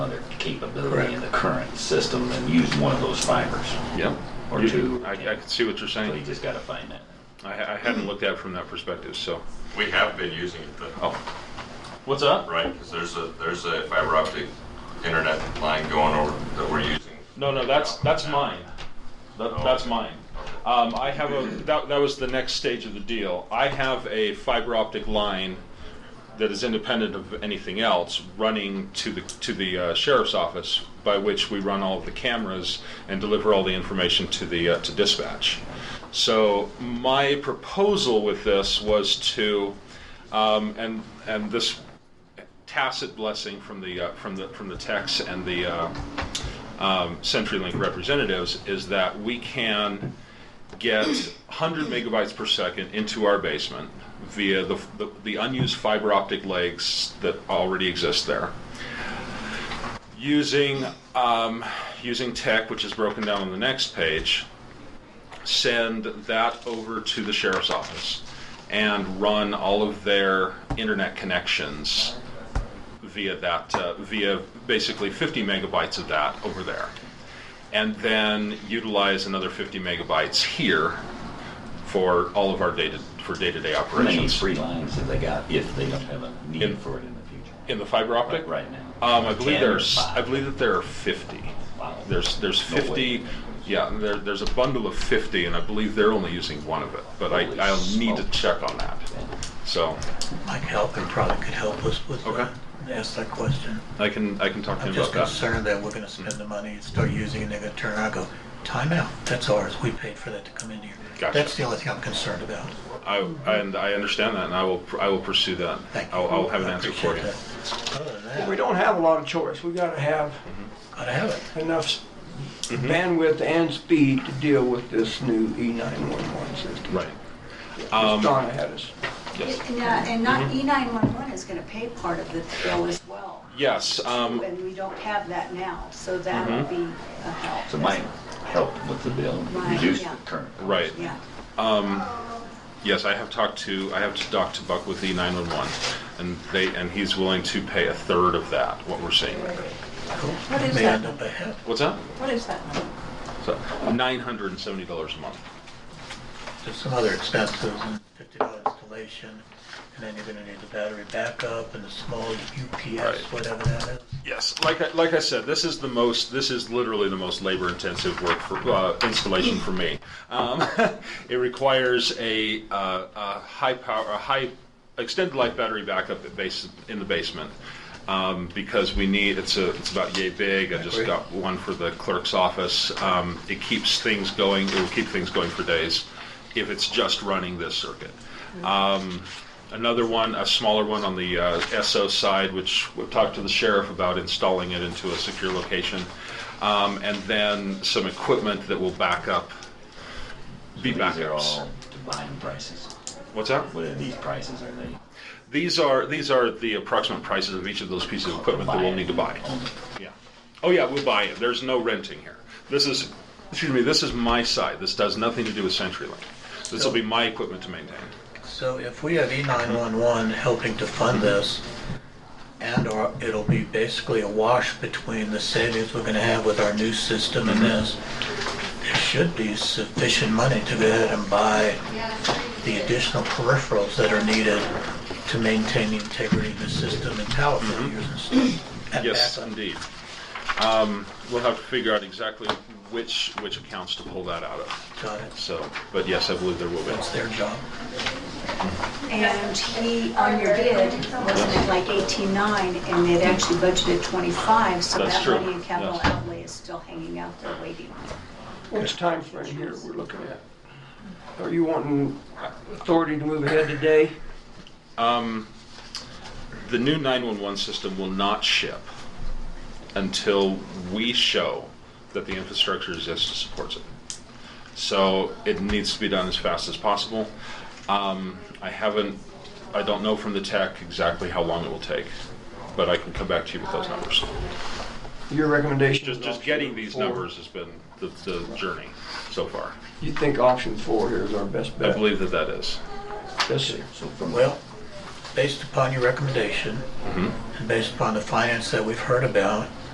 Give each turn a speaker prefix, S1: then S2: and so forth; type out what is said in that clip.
S1: capability
S2: Correct.
S1: in the current system and use one of those fibers.
S3: Yep.
S1: Or
S3: You-
S1: two.
S3: I, I can see what you're
S1: So you
S3: saying.
S1: just gotta find that.
S3: I, I hadn't looked at it from that perspective, so.
S4: We have been using it though,
S3: Oh,
S1: What's up?
S4: right? Because there's a, there's a fiber optic internet line going over that we're using.
S3: no, no, that's, that's mine. That, that's mine. Um, I have a, that, that was the next stage of the deal. I have a fiber optic line that is independent of anything else running to the, to the uh, sheriff's office by which we run all of the cameras and deliver all the information to the, uh, to dispatch. So my proposal with this was to, um, and, and this tacit blessing from the, uh, from the, from the techs and the, uh, um, CenturyLink representatives is that we can get 100 megabytes per second into our basement via the, the, the unused fiber optic legs that already exist there. Using, um, using tech, which is broken down on the next page, send that over to the sheriff's office and run all of their internet connections via that, uh, via basically 50 megabytes of that over there. And then utilize another 50 megabytes here for all of our data, for day-to-day
S1: How many
S3: operations.
S1: free lines have they got if they don't have a need for it in the future?
S3: In the fiber optic?
S1: But right now.
S3: Um, I believe
S1: Ten or
S3: there's,
S1: five?
S3: I believe that there are 50.
S1: Wow.
S3: There's, there's
S1: No way.
S3: 50, yeah, there, there's a bundle of 50, and I believe they're only using one of it, but I,
S1: Holy
S3: I'll need to
S1: smoke.
S3: check on that. So,
S2: Mike Halpin probably could help us with
S3: Okay.
S2: that, ask that question.
S3: I can, I can talk to
S2: I'm
S3: him
S2: just
S3: about that.
S2: concerned that we're gonna
S3: Mm-hmm.
S2: spend the money, and start using it, and they're gonna turn around and go, "Time out. that's ours, we paid for that to come in here.
S3: Gotcha.
S2: That's the only thing I'm concerned about.
S3: I, and I understand that, and I will, I will pursue that.
S2: Thank you.
S3: I'll, I'll have an
S2: I
S3: answer for you.
S2: appreciate that. Other than that,
S5: We don't have a lot of choice. We gotta have
S2: gotta have it.
S5: enough s-
S3: Mm-hmm.
S5: bandwidth and speed to deal with this new E E911 system.
S3: Right. Um,
S5: It's gone ahead us.
S3: Yes. Mm-hmm.
S6: And, uh, And not, E911 is going to pay part of the bill as well.
S3: Yes, um, Mm-hmm.
S6: And we don't have that now, so that would be a help.
S1: So it might help with the bill,
S6: Right,
S1: reduce the
S6: yeah.
S1: current.
S3: right.
S6: Yeah.
S3: Yes, I have talked to, I have to talk to Buck with E the 911, and they, and he's willing to pay a third of that, what we're seeing.
S7: What is
S2: May
S7: that?
S2: end up ahead.
S3: What's that?
S7: What is that?
S3: So, $970 a month.
S2: There's some other expenses, and fifty dollar installation, and then you're gonna need the battery backup and the small UPS,
S3: Right.
S2: whatever that is.
S3: Yes, like I, like I said, this is the most. This is literally the most labor-intensive work for uh, installation for me. Um, it requires a, uh, a high power, a high extended life battery backup at base, in the basement um, because we need. It's a. It's about yay big. I just
S2: Agree.
S3: got one for the clerk's office. Um, it keeps things going. It will keep things going for days if it's just running this circuit. Another one, a smaller one on the uh, SO side, which we've talked to the sheriff about installing it into a secure location. Um, And then some equipment that will back up, be
S1: These are
S3: backups.
S1: all combined prices.
S3: What's that?
S1: What are these prices, are they?
S3: These are, these are the approximate prices of each of those pieces of equipment that we'll need to buy.
S1: Only.
S3: Yeah. Oh, yeah, we'll buy it. There's no renting here. This is, excuse me, this is my side. This does nothing to do with CenturyLink. This will be my equipment to maintain.
S2: So if we have E E911 helping to fund this, and/or it'll be basically a wash between the savings we're gonna have with our new system
S3: Mm-hmm.
S2: and this, there should be sufficient money to go ahead and buy the additional peripherals that are needed to maintain the integrity of the system and power failures and stuff. and
S3: Mm-hmm. Yes,
S2: backup.
S3: indeed. Um, We'll have to figure out exactly which, which accounts to pull that out of.
S2: Got it.
S3: So, but yes, I believe there will be.
S2: That's their job.
S6: And he, on your bid, wasn't it like 18.9, and they'd actually budgeted 25, so
S3: That's
S6: that
S3: true,
S6: money in capital
S3: yes.
S6: outlay is still hanging out there waiting.
S5: What's time frame here we're looking at? Are you wanting authority to move ahead today?
S3: The new 911 system will not ship until we show that the infrastructure exists to support it. So it needs to be done as fast as possible. Um, I haven't, I don't know from the tech exactly how long it will take, but I can come back to you with those numbers.
S5: Your recommendation?
S3: Just,
S5: is
S3: just
S5: option
S3: getting these
S5: four.
S3: numbers has been the, the journey so far.
S5: You think option four here is our best
S3: I
S5: bet?
S3: believe that that is.
S5: Yes, sir.
S1: So from,
S2: Well,
S3: Mm-hmm.
S2: based upon your recommendation, and based upon the finance that we've heard about,